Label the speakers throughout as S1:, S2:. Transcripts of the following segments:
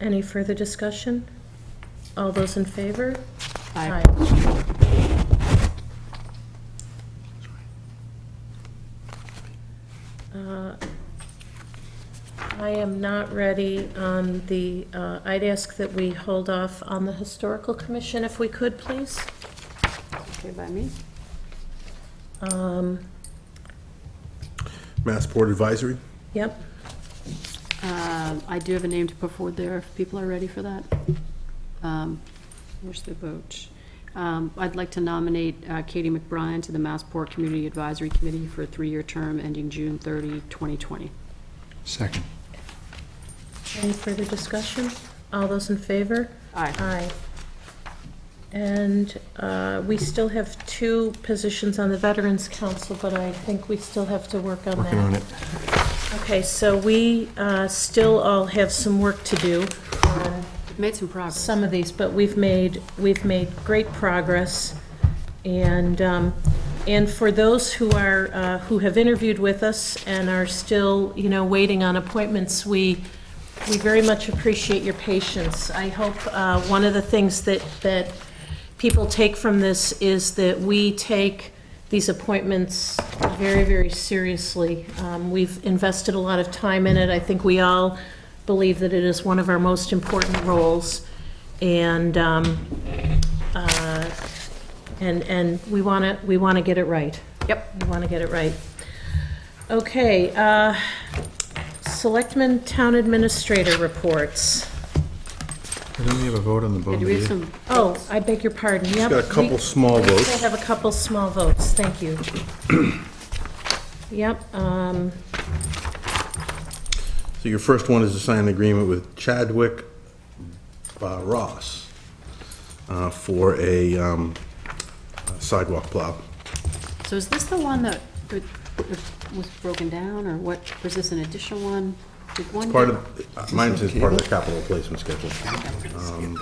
S1: Any further discussion? All those in favor?
S2: Aye.
S1: Uh, I am not ready on the, uh, I'd ask that we hold off on the Historical Commission if we could, please.
S2: Okay, by me?
S1: Um,
S3: Massport Advisory?
S1: Yep,
S2: Um, I do have a name to put forward there, if people are ready for that. Um, Where's the vote? Um, I'd like to nominate uh, Katie McBride to the Massport Community Advisory Committee for a three-year term ending June 30, 2020.
S4: Second.
S1: any further discussion? All those in favor?
S2: Aye.
S1: Aye. And uh, we still have two positions on the Veterans Council, but I think we still have to work on that.
S4: Working on it.
S1: Okay, so we uh, still all have some work to do on
S2: We've Made some progress.
S1: some of these, but we've made, we've made great progress. And, um, and for those who are, uh, who have interviewed with us and are still, you know, waiting on appointments, we, we very much appreciate your patience. I hope, uh, one of the things that, that people take from this is that we take these appointments very, very seriously. Um, We've invested a lot of time in it. I think we all believe that it is one of our most important roles. And, um, uh, and, and we want to, we want to get it right. Yep. We want to get it right. Okay, uh, Selectmen Town Administrator reports.
S4: I don't we have a vote on the
S2: Yeah,
S4: vote?
S2: Do we have some,
S1: Oh, I beg your pardon, yep.
S3: Got a couple
S1: we-
S3: small
S1: We still
S3: votes.
S1: have a couple small votes, thank you. Yep, um,
S3: So your first one is to sign an agreement with Chadwick uh, Ross uh, for a um, sidewalk plow.
S2: so is this the one that that was broken down, or what, was this an additional one? Did one
S3: Part
S2: get-
S3: of, uh, mine says part of the capital replacement schedule. Um,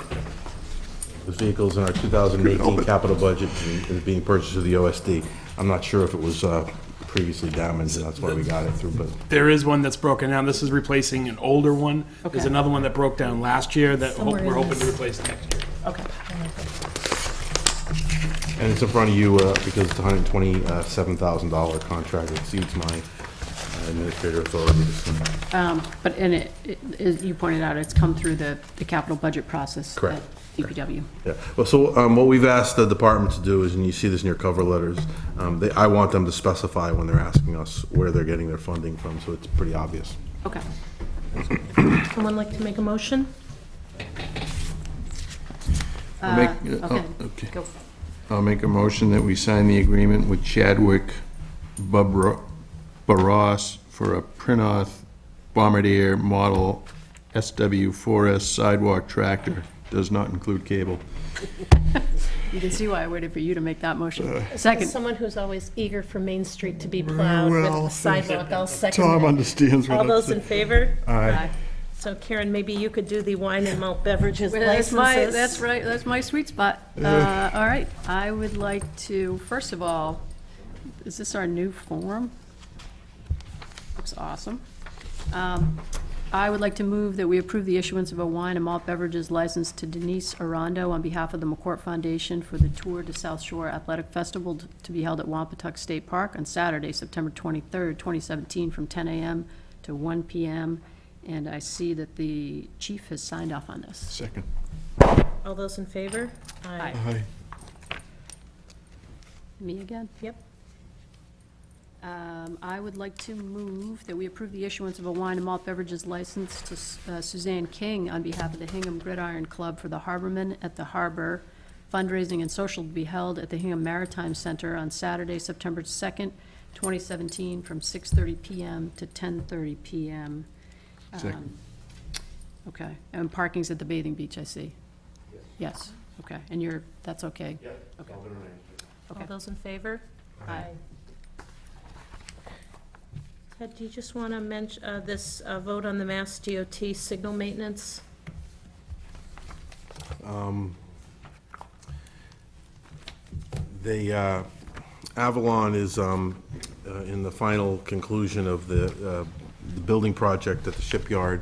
S3: The vehicle's in our 2018 capital budget and is being purchased through the OSD. I'm not sure if it was uh, previously damaged, and that's why we got it through, but
S5: There is one that's broken down. This is replacing an older one. There's
S2: Okay.
S5: another one that broke down last year that ho-
S1: Somewhere in
S5: we're hoping to
S1: this.
S5: replace next year.
S1: okay.
S3: And it's in front of you uh, because it's a hundred and twenty-seven thousand dollar contract that exceeds my uh, administrator authority. to sign.
S2: Um, But, and it, it- as you pointed out, it's come through the, the capital budget process. at
S3: Correct.
S2: DPW.
S3: Yeah, well, so um, what we've asked the department to do is, and you see this in your cover letters, um, they, I want them to specify when they're asking us where they're getting their funding from, so it's pretty obvious.
S2: Okay.
S1: Someone like to make a motion?
S4: I'll make-
S2: Uh, Okay.
S4: oh, okay.
S2: Go.
S4: I'll make a motion that we sign the agreement with Chadwick Bubro- Barros for a Prinoth Bombardier Model SW4S sidewalk tractor. Does not include cable.
S2: You can see why I waited for you to make that motion.
S1: As
S2: Second,
S1: someone who's always eager for Main Street to be plowed with
S4: Well,
S1: the sidewalk, I'll second
S4: Tom
S1: that.
S4: understands what
S1: All
S4: I'm
S1: those in
S4: saying.
S1: favor?
S2: Aye.
S1: So Karen, maybe you could do the wine and malt beverages
S2: that's my,
S1: licenses.
S2: that's right, that's my sweet spot. Uh, All right, I would like to, first of all, is this our new form? Looks awesome. Um, I would like to move that we approve the issuance of a wine and malt beverages license to Denise Arando on behalf of the McCourt Foundation for the Tour de South Shore Athletic Festival t- to be held at Wampatuck State Park on Saturday, September 23rd, 2017, from 10 a.m. to 1 p.m. And I see that the chief has signed off on this.
S4: Second.
S1: All those in favor? Aye.
S4: Aye.
S2: Me again?
S1: Yep.
S2: Um, I would like to move that we approve the issuance of a wine and malt beverages license to S- uh, Suzanne King on behalf of the Hingham Gridiron Club for the Harbormen at the Harbor. Fundraising and social to be held at the Hingham Maritime Center on Saturday, September 2nd, 2017, from 6:30 PM to 10:30 PM.
S4: Second.
S2: Okay, and parking's at the bathing beach, I see. Yes, okay, and you're, that's okay? Yeah. Okay.
S1: All those in favor? Aye. Ted, do you just want to mention this uh, vote on the Mass DOT signal maintenance?
S3: The uh, Avalon is um, uh, in the final conclusion of the, uh, the building project at the shipyard.